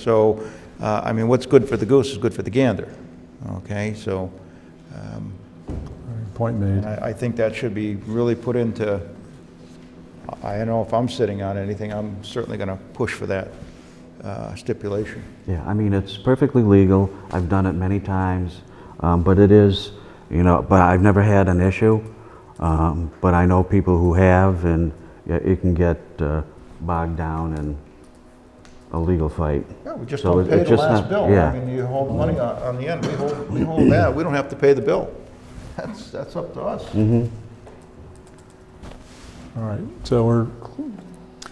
So, uh, I mean, what's good for the goose is good for the gander, okay? So um, Point made. I I think that should be really put into, I I don't know if I'm sitting on anything, I'm certainly going to push for that uh, stipulation. Yeah, I mean, it's perfectly legal. I've done it many times, um, but it is, you know, but I've never had an issue. Um, but I know people who have, and yeah, it can get uh, bogged down in a legal fight. Yeah, we just So don't it- pay it's the just last not- bill. yeah. I mean, you hold money on on the end, we hold, we hold that, we don't have to pay the bill. That's, that's up to us. Mm-hmm. All right, so we're,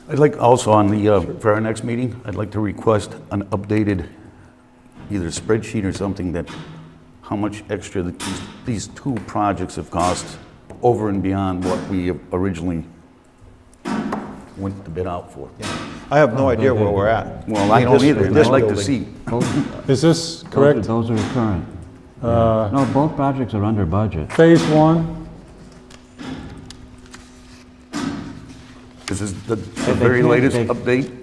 I'd like also on the, uh, for our next meeting, I'd like to request an updated either spreadsheet or something that, how much extra that these, these two projects have cost over and beyond what we originally went to bid out for. I have no idea where we're at. Well, I This- don't either, and this I'd like to building. see. is this correct? Uh, Those are current. No, both projects are under budget. Phase one, This is the the they very can't latest take- update.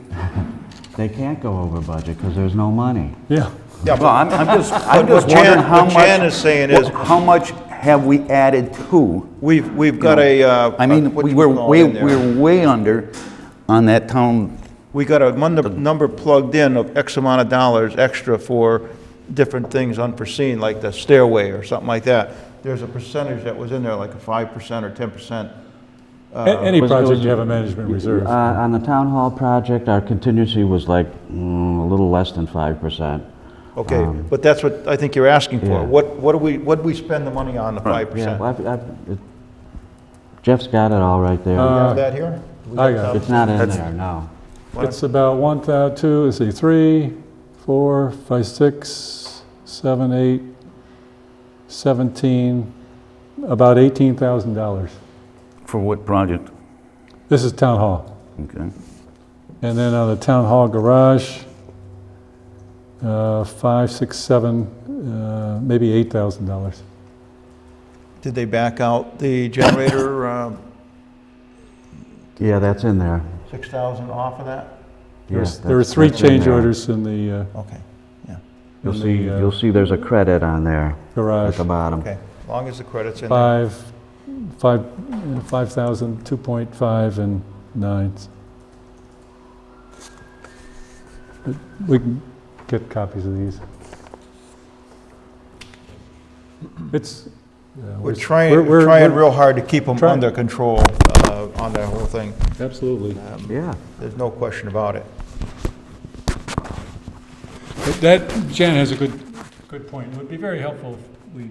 They can't go over budget because there's no money. yeah. Yeah, Well, but I'm, I'm just, I'm But what just wondering Jan- how what much. Jan is saying is- wh- How much have we added to? we've, we've got a, uh, I mean, what we you were call it way, in there. we were way under on that town, We got a mon- number plugged in of X amount of dollars extra for different things unforeseen, like the stairway or something like that. There's a percentage that was in there, like a 5% or 10%. A- Any was- Uh, it project was- you have a management reserve. Uh, on the town hall project, our contingency was like mm, a little less than 5%. Okay, Um, but that's what I think you're asking for. Yeah. What, what do we, what do we spend the money on, the 5%? Yeah, Do well, I've- I've- it- Jeff's got it all right there. you Uh, have that here? We I got it. It's not in That's- there, no. It's about one thou, two, let's see, three, four, five, six, seven, eight, 17, about $18,000. for what project? This is town hall. Okay. And then on the town hall garage, uh, five, six, seven, uh, maybe $8,000. Did they back out the generator, uh, Yeah, that's in there. 6,000 off of that? Yeah, There's- There that's- were three that's in change there. orders in the uh, Okay, yeah, You'll in see, the, uh, you'll see there's a credit on there uh, at garage. the bottom. okay. As long as the credit's in there. Five, five, uh, 5,000, 2.5, and 9. We can get copies of these. It's. uh, yeah, We're we're- trying, we're- we're trying we're- real hard to keep them Trying. under control uh, on that whole thing. Um, Absolutely. Yeah. There's no question about it. But That, Jan has a good, good point. It would be very helpful if we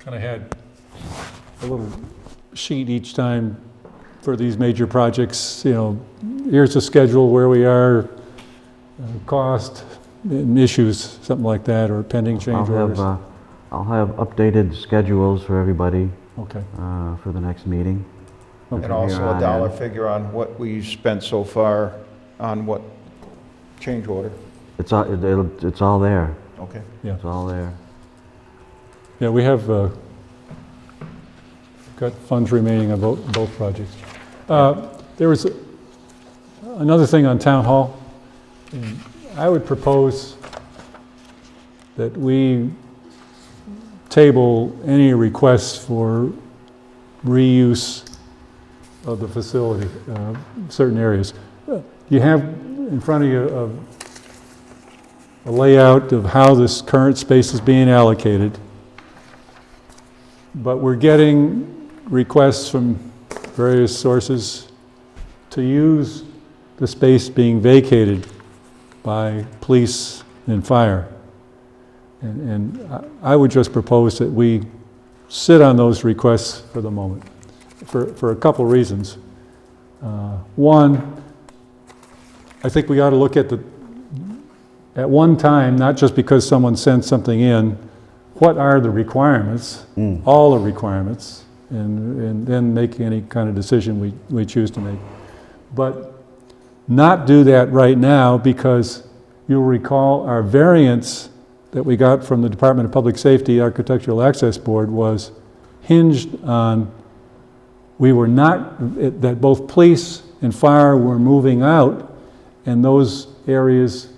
kind of had a little sheet each time for these major projects, you know, here's the schedule, where we are, uh, cost, and issues, something like that, or pending I'll change have, orders. uh, I'll have updated schedules for everybody Okay, uh, for the next meeting. And From here also a on dollar in. figure on what we spent so far on what change order. It's all, it- it'll- it's all there, Okay. yeah. it's all there. Yeah, we have uh, got funds remaining on both both projects. Uh, There was another thing on Town Hall. and I would propose that we table any requests for reuse of the facility, uh, certain areas. You have in front of you a- a layout of how this current space is being allocated. But we're getting requests from various sources to use the space being vacated by police and fire. And, and I- I would just propose that we sit on those requests for the moment, for, for a couple reasons. Uh, One, I think we ought to look at the, at one time, not just because someone sent something in, what are the requirements, all the requirements, and, and then make any kind of decision we, we choose to make. But not do that right now because you'll recall our variance that we got from the Department of Public Safety Architectural Access Board was hinged on, we were not, that both police and fire were moving out, and those areas